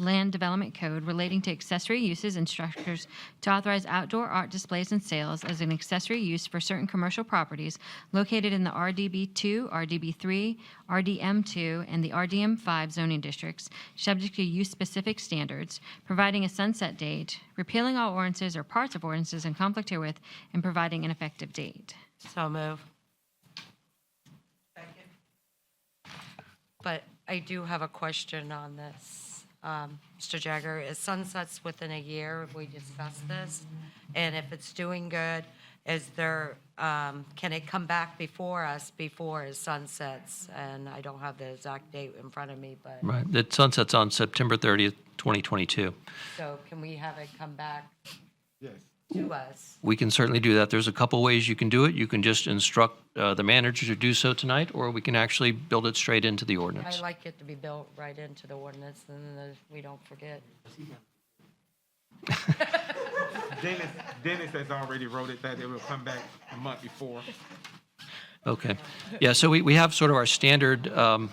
Land Development Code relating to accessory uses and structures to authorize outdoor art displays and sales as an accessory use for certain commercial properties located in the RDB2, RDB3, RDM2, and the RDM5 zoning districts, subject to use-specific standards, providing a sunset date, repealing all ordinances or parts of ordinances in conflict herewith, and providing an effective date. So move. But I do have a question on this. Um, Mr. Jagger, is sunsets within a year? We discussed this. And if it's doing good, is there, um, can it come back before us before it sunsets? And I don't have the exact date in front of me, but, Right, the sunset's on September 30th, 2022. so can we have it come back Yes. to us? We can certainly do that. There's a couple ways you can do it. You can just instruct uh, the manager to do so tonight, or we can actually build it straight into the I ordinance. like it to be built right into the ordinance, and then we don't forget. Dennis, Dennis has already wrote it that it will come back a month before. Okay, yeah, so we, we have sort of our standard, um,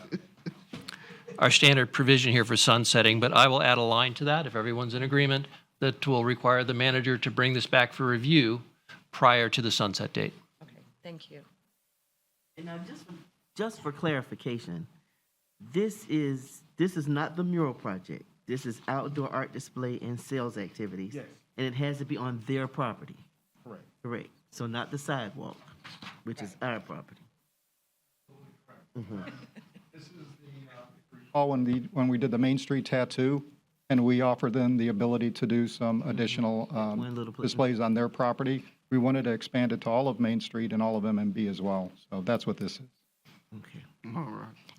our standard provision here for sunsetting, but I will add a line to that, if everyone's in agreement, that will require the manager to bring this back for review prior to the sunset date. Okay, thank you. And now, just for, just for clarification, this is this is not the mural project. This is outdoor art display and sales activities. Yes. And it has to be on their property. Correct. Correct. So not the sidewalk, which is our property. Paul, when the, when we did the Main Street tattoo, and we offered them the ability to do some additional um, Mm-hmm. One little place. displays on their property, we wanted to expand it to all of Main Street and all of MMB as well. So that's what this is. Okay.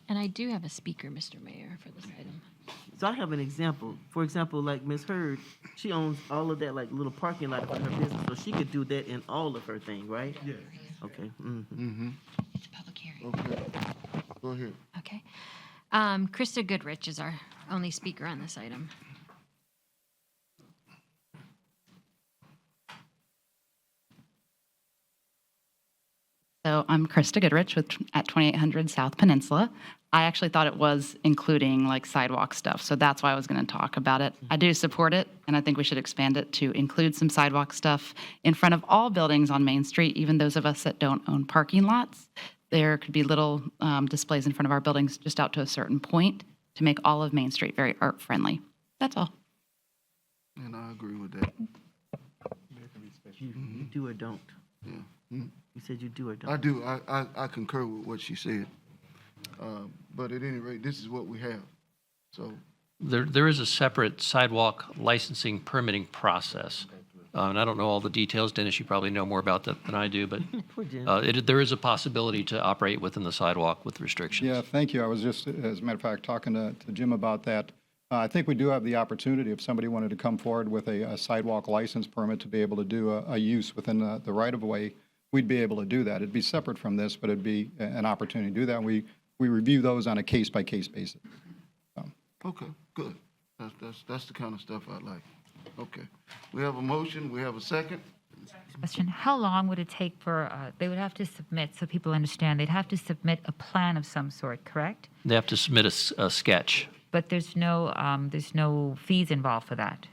And I do have a speaker, Mr. Mayor, for this item. So I have an example. For example, like Miss Heard, she owns all of that like little parking lot for her business, so she could do that in all of her thing, right? Yes. Okay. mhm. It's a public hearing. Go ahead. Okay. Um, Krista Goodrich is our only speaker on this item. So I'm Krista Goodrich with, at 2800 South Peninsula. I actually thought it was including like sidewalk stuff, so that's why I was going to talk about it. I do support it, and I think we should expand it to include some sidewalk stuff in front of all buildings on Main Street, even those of us that don't own parking lots. There could be little um, displays in front of our buildings just out to a certain point to make all of Main Street very art friendly. That's all. And I agree with that. You, you do or don't. You said you do or don't. I do. I, I, I concur with what she said. Um, But at any rate, this is what we have. So There, there is a separate sidewalk licensing permitting process. Uh, And I don't know all the details, Dennis, you probably know more about that than I do, but Poor Jim. uh, it, there is a possibility to operate within the sidewalk with restrictions. Yeah, thank you. I was just, as a matter of fact, talking to to Jim about that. Uh, I think we do have the opportunity, if somebody wanted to come forward with a a sidewalk license permit to be able to do a a use within the the right-of-way, we'd be able to do that. It'd be separate from this, but it'd be a- an opportunity to do that. We, we review those on a case-by-case basis. Okay, good. That's, that's, that's the kind of stuff I like. Okay. We have a motion, we have a second. Question, how long would it take for, uh, they would have to submit, so people understand, they'd have to submit a plan of some sort, correct? They have to submit a s- a, sketch. But there's no, um, there's no fees involved for that.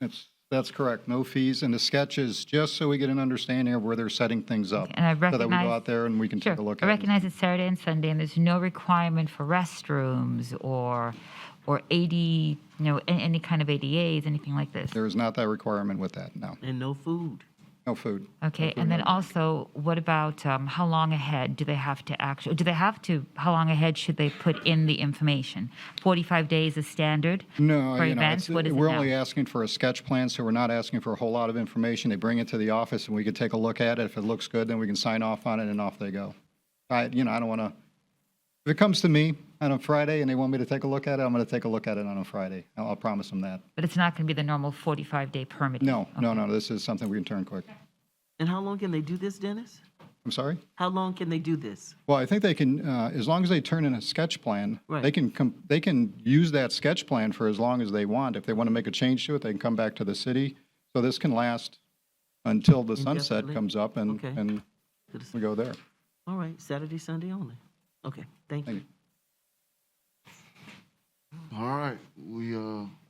That's, that's correct. No fees. And the sketch is just so we get an understanding of where they're setting things up. And I So that we go recognize- out there and we can Sure, take a look I at it. recognize it's Saturday and Sunday, and there's no requirement for restrooms or, or AD, you know, a- any kind of ADAs, anything like this. There is not that requirement with that, no. and no food. No food. Okay, and then also, what about, um, how long ahead do they have to actually, do they have to, how long ahead should they put in the information? Forty-five days is standard? No, For you know, events, it's- what is it we're only now? asking for a sketch plan, so we're not asking for a whole lot of information. They bring it to the office and we can take a look at it. If it looks good, then we can sign off on it and off they go. I, you know, I don't want to, if it comes to me on a Friday and they want me to take a look at it, I'm going to take a look at it on a Friday. I'll, I'll promise them that. But it's not going to be the normal 45-day permit? No, no, no, this is something we can turn quick. And how long can they do this, Dennis? I'm sorry? How long can they do this? Well, I think they can, uh, as long as they turn in a sketch plan, they Right. can, com- they can use that sketch plan for as long as they want. If they want to make a change to it, they can come back to the city. So this can last until the sunset Indefinitely. comes up and, Mm, Okay. and Good to we see. go there. All right, Saturday, Sunday only. Okay, thank Thank you. you. All right, we, uh,